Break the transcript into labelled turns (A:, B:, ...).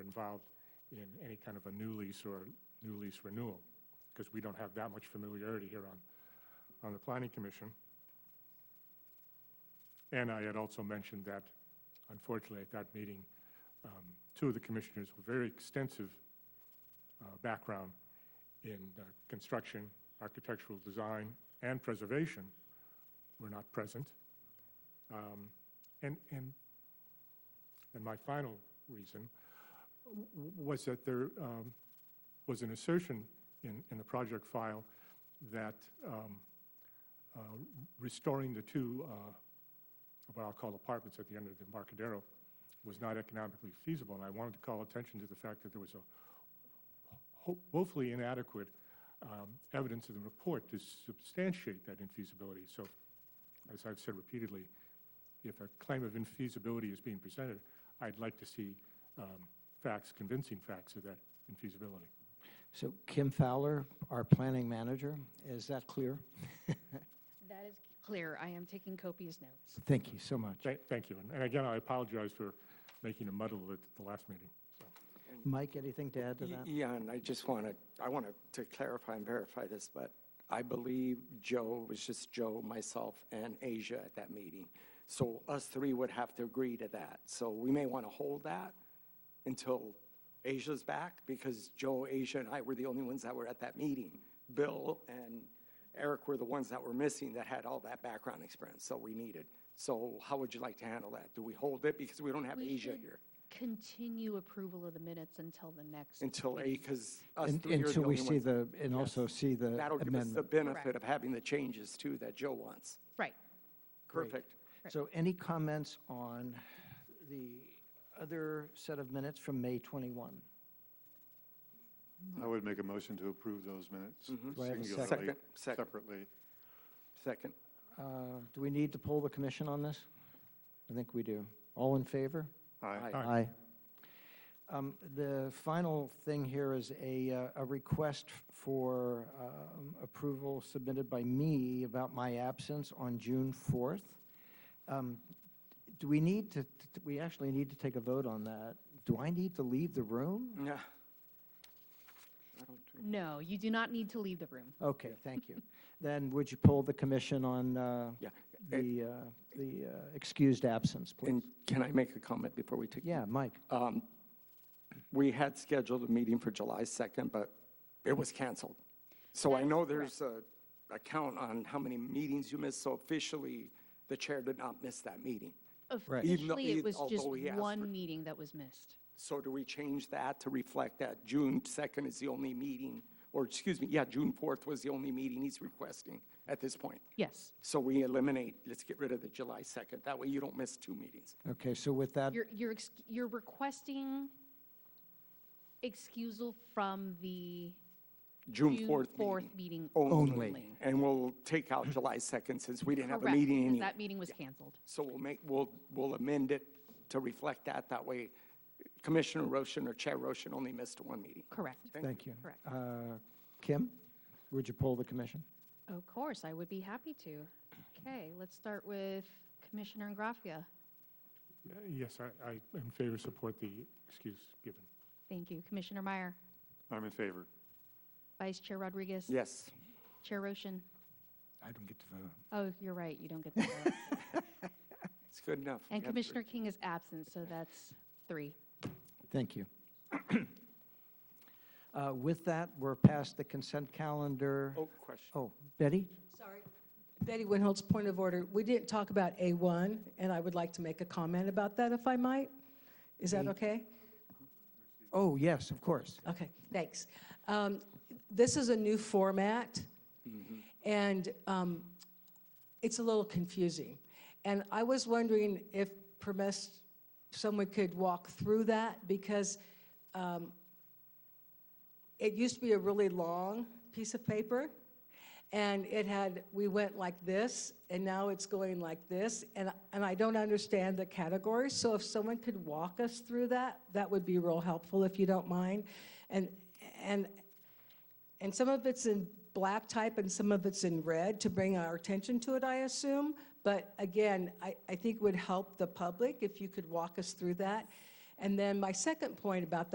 A: involved in any kind of a new lease or new lease renewal, because we don't have that much familiarity here on, on the planning commission. And I had also mentioned that unfortunately at that meeting, um, two of the commissioners were very extensive uh, background in uh, construction, architectural design, and preservation were not present. Um, And, and, and my final reason w- w- was that there um, was an assertion in, in the project file that um, uh, restoring the two, uh, what I'll call apartments at the end of the Embarcadero, was not economically feasible. And I wanted to call attention to the fact that there was a ho- woefully inadequate um, evidence in the report to substantiate that infeasibility. So, as I've said repeatedly, if a claim of infeasibility is being presented, I'd like to see um, facts, convincing facts of that infeasibility.
B: So Kim Fowler, our planning manager, is that clear?
C: That is clear. I am taking copious notes.
B: Thank you so much.
A: Thank, thank you. And- And again, I apologize for making a muddle at the last meeting. So,
B: Mike, anything to add to that?
D: Yeah, and I just want to, I want to clarify and verify this, but I believe Joe, it was just Joe, myself, and Asia at that meeting. So us three would have to agree to that. So we may want to hold that until Asia's back, because Joe, Asia, and I were the only ones that were at that meeting. Bill and Eric were the ones that were missing that had all that background experience, so we needed. So how would you like to handle that? Do we hold it? Because we don't have
C: We
D: Asia
C: should
D: here.
C: Continue approval of the minutes until the next.
D: Until,
C: meeting.
D: because us
B: And-
D: three are the
B: Until we
D: only
B: see
D: ones.
B: the, and also see the
D: That'll give us the
B: amendment.
D: benefit of having the changes too that Joe wants.
C: Right.
D: Perfect.
B: So any comments on the other set of minutes from May 21?
E: I would make a motion to approve those minutes.
B: Do I have
E: singularly,
B: a
D: Mm-hmm. second? Second, second.
E: Separately.
D: Second.
B: Uh, Do we need to poll the commission on this? I think we do. All in favor?
E: Aye.
A: Aye.
B: Aye. Um, The final thing here is a, uh, a request for um, approval submitted by me about my absence on June 4th. Um, Do we need to, t- we actually need to take a vote on that. Do I need to leave the room?
D: Yeah. I don't do-
C: No, you do not need to leave the room.
B: Okay, thank you. Then would you poll the commission on uh,
D: Yeah.
B: the, uh, the uh, excused absence, please?
D: And can I make a comment before we take?
B: Yeah, Mike?
D: Um, We had scheduled a meeting for July 2nd, but it was canceled. So I
C: That is
D: know there's a, a count on how many meetings you missed, so officially, the chair did not miss that meeting.
B: Right.
D: Even though-
C: Officially, it
D: even-
C: was just
D: although he asked for-
C: one meeting that was missed.
D: So do we change that to reflect that June 2nd is the only meeting, or excuse me, yeah, June 4th was the only meeting he's requesting at this point?
C: Yes.
D: So we eliminate, let's get rid of the July 2nd. That way you don't miss two meetings.
B: Okay, so with that,
C: You're, you're, ex- you're requesting excusal from the
D: June
C: June
D: 4th meeting.
C: 4th meeting
D: Only.
C: only.
D: And we'll take out July 2nd since we didn't have a
C: Correct,
D: meeting
C: because
D: anyway.
C: that meeting was canceled.
D: So we'll make, we'll, we'll amend it to reflect that. That way Commissioner Roshan or Chair Roshan only missed one meeting.
C: Correct.
B: thank you.
C: Correct.
B: Uh, Kim, would you poll the commission?
C: Of course, I would be happy to. Okay, let's start with Commissioner Graffia.
A: uh, Yes, I, I in favor, support the excuse given.
C: Thank you. Commissioner Meyer,
E: I'm in favor.
C: Vice Chair Rodriguez.
D: Yes.
C: Chair Roshan.
B: I don't get to vote.
C: Oh, you're right, you don't get the vote.
D: It's good enough. We
C: And
D: have three.
C: Commissioner King is absent, so that's three.
B: Thank you. Uh, With that, we're past the consent calendar.
D: Oh, question.
B: Oh, Betty?
F: Sorry. Betty Winholtz, point of order. We didn't talk about A1, and I would like to make a comment about that if I might. Is that okay?
B: Oh, yes, of course.
F: Okay, thanks. Um, This is a new format, and um, it's a little confusing. And I was wondering if permess, someone could walk through that, because um, it used to be a really long piece of paper, and it had, we went like this, and now it's going like this, and, and I don't understand the categories, so if someone could walk us through that, that would be real helpful, if you don't mind. And, and, and some of it's in black type and some of it's in red to bring our attention to it, I assume. But again, I, I think it would help the public if you could walk us through that. And then my second point about